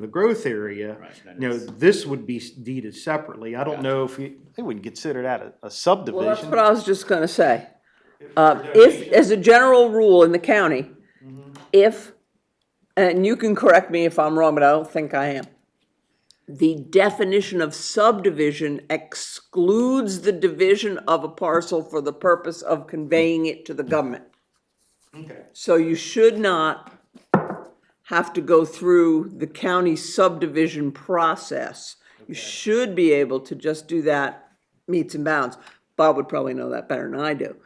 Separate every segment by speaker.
Speaker 1: the growth area,
Speaker 2: Right, then
Speaker 1: you know,
Speaker 2: it's-
Speaker 1: this would be deeded separately. I don't
Speaker 2: Gotcha.
Speaker 1: know if you, they wouldn't consider that a- a
Speaker 3: Well, that's
Speaker 1: subdivision.
Speaker 3: what I was just gonna say. Uh, if, as a Mm-hmm. general rule in the county, if, and you can correct me if I'm wrong, but I don't think I am. The definition of subdivision excludes the division of a parcel for the purpose of conveying it to the government.
Speaker 1: Okay.
Speaker 3: So you should not have to go through the county subdivision process. You should be able to just do that meets and bounds. Bob would probably know that better than I do.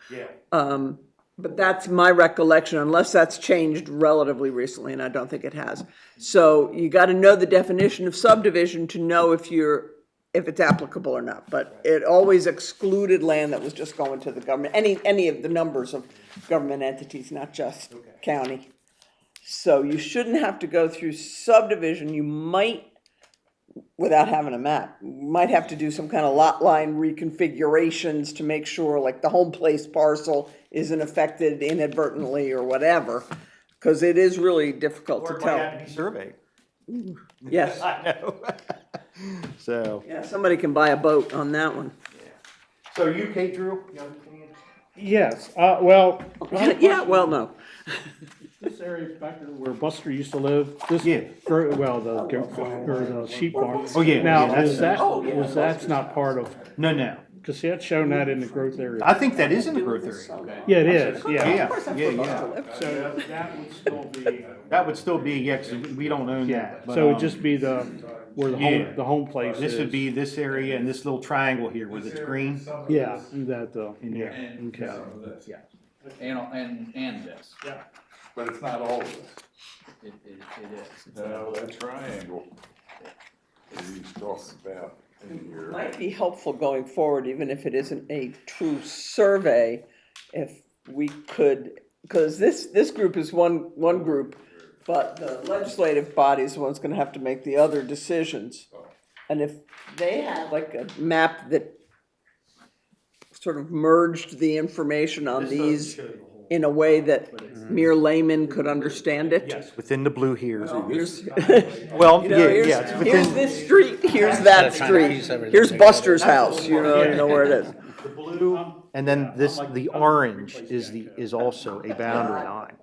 Speaker 3: Um,
Speaker 1: Yeah.
Speaker 3: But that's my recollection, unless that's changed relatively recently, and I don't think it has. So you gotta know the definition of subdivision to know if you're, if it's applicable or not. But it always excluded land that was just going to the government, any, any of the numbers of government entities, not just county. So you shouldn't have to go through subdivision, you might, without having a map, you might have to do some kind of lot line reconfigurations to make sure, like, the home place parcel isn't affected inadvertently or whatever, because it is really difficult to tell.
Speaker 1: be surveyed.
Speaker 3: Yes,
Speaker 1: I know. So,
Speaker 3: yeah, somebody can buy a boat on that one.
Speaker 1: so UK Drew, you understand?
Speaker 4: Yes, uh, well,
Speaker 3: Yeah, well, no.
Speaker 4: this area back there where Buster used to live, this,
Speaker 1: Yeah.
Speaker 4: gro- well, the, gro- or the sheep farm.
Speaker 1: Oh, yeah, yeah,
Speaker 4: Now,
Speaker 1: that's-
Speaker 4: is that,
Speaker 3: Oh,
Speaker 4: is that's not part of,
Speaker 1: No, no.
Speaker 4: cause see, that's shown that in the growth area.
Speaker 1: I think that is in the growth area.
Speaker 4: Yeah, it is, yeah.
Speaker 1: Yeah, yeah, yeah.
Speaker 4: So that would still be,
Speaker 1: That would still be, yeah, 'cause we don't own
Speaker 4: yeah,
Speaker 1: that. but,
Speaker 4: so
Speaker 1: um,
Speaker 4: it'd just be the, where the
Speaker 1: Yeah.
Speaker 4: home, the home place
Speaker 1: This would
Speaker 4: is.
Speaker 1: be this area and this little triangle here where it's green.
Speaker 4: Yeah, that, uh, yeah,
Speaker 2: And,
Speaker 4: okay.
Speaker 2: yeah, and, and, and this,
Speaker 5: But it's not all of it.
Speaker 2: it, it, it is.
Speaker 5: No, that triangle that he's talking about in here.
Speaker 3: Might be helpful going forward, even if it isn't a true survey, if we could, because this, this group is one, one group, but the legislative body is the one's gonna have to make the other decisions. And if they had like a map that sort of merged the information on these in a way that mere laymen could understand it.
Speaker 1: Yes, within the blue here.
Speaker 3: Here's,
Speaker 1: Well,
Speaker 3: you
Speaker 1: yeah,
Speaker 3: know,
Speaker 1: yeah, it's
Speaker 3: here's, here's
Speaker 1: within,
Speaker 3: this street, here's that street, here's Buster's house, you know, you know where it is.
Speaker 4: Um,
Speaker 1: and then this, the orange is the, is also a boundary line.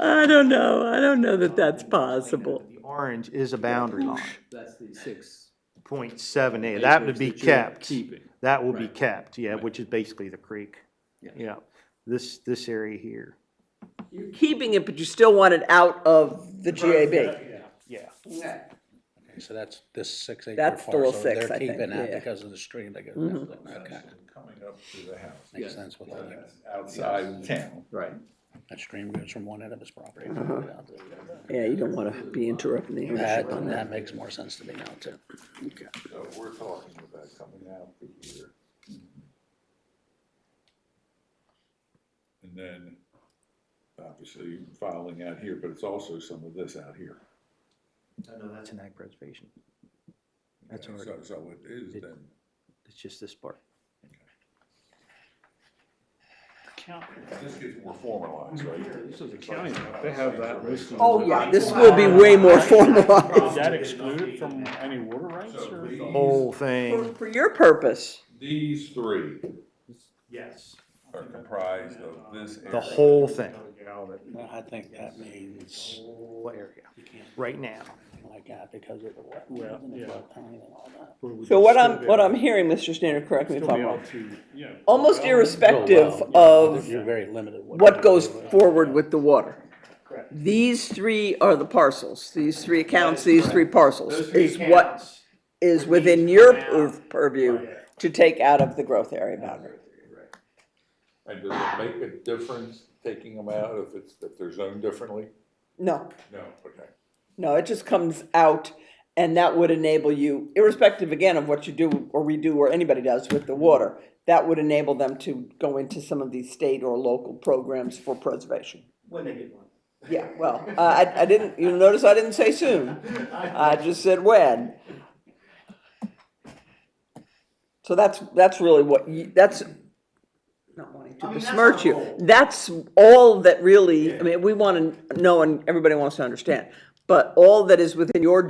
Speaker 3: I don't know. I don't know that that's possible.
Speaker 1: The orange is a boundary line,
Speaker 2: That's the six.
Speaker 1: point seven eight, that would be
Speaker 2: acres that you're
Speaker 1: kept.
Speaker 2: Keeping.
Speaker 1: That will be
Speaker 2: Right.
Speaker 1: kept, yeah, which is basically the creek.
Speaker 2: Yeah.
Speaker 1: Yeah, this, this area here.
Speaker 3: You're keeping it, but you still want it out of the GAB.
Speaker 1: Yeah.
Speaker 6: So that's this six acre
Speaker 3: That's the
Speaker 6: parcel,
Speaker 3: little
Speaker 6: they're
Speaker 3: six, I think,
Speaker 6: keeping that
Speaker 3: yeah. Mm-hmm.
Speaker 6: because of the stream that goes down. there. Okay,
Speaker 5: Coming up to the house,
Speaker 6: makes sense with all that.
Speaker 5: outside of town.
Speaker 2: Right.
Speaker 6: That stream goes from one end of his property. to the other.
Speaker 3: Uh-huh. Yeah, you don't want to be interrupting the
Speaker 6: That,
Speaker 3: ownership on that.
Speaker 6: that makes more sense to me now too. Okay.
Speaker 5: So we're talking about coming out to here. And then, obviously, filing out here, but it's also some of this out here.
Speaker 1: No, that's an ag preservation. That's
Speaker 5: And
Speaker 1: already,
Speaker 5: So, so it is
Speaker 1: It-
Speaker 5: then,
Speaker 1: it's just this part.
Speaker 5: this gets more formalized, right? This is a county,
Speaker 4: They have that listed.
Speaker 3: Oh, yeah, this will be way more formalized.
Speaker 4: Is that excluded from any water rights
Speaker 5: So
Speaker 4: or?
Speaker 5: these,
Speaker 1: Whole thing.
Speaker 3: For your purpose,
Speaker 5: these three
Speaker 1: Yes.
Speaker 5: are comprised of this area.
Speaker 1: The whole thing,
Speaker 6: Well, I think that means
Speaker 1: whole area, right now.
Speaker 6: like that because of the wetlands and the flood plain and all that.
Speaker 3: so what I'm, what I'm hearing, Mr. Standard, correct me if I'm wrong, almost irrespective
Speaker 6: There's
Speaker 3: of
Speaker 6: very limited.
Speaker 3: what goes forward with the water. These three are the parcels, these three accounts, these three parcels, is what is within your pur- purview to take out of the growth area boundary.
Speaker 5: And does it make a difference taking them out if it's, if they're zoned differently?
Speaker 3: No,
Speaker 5: No, okay.
Speaker 3: no, it just comes out and that would enable you, irrespective again of what you do or we do or anybody does with the water, that would enable them to go into some of these state or local programs for preservation.
Speaker 1: When they get one.
Speaker 3: Yeah, well, uh, I, I didn't, you notice I didn't say soon. I just said when. So that's, that's really what you, that's, not wanting to besmirch you. That's all that really, I mean, we want to know and everybody wants to understand. But all that is within your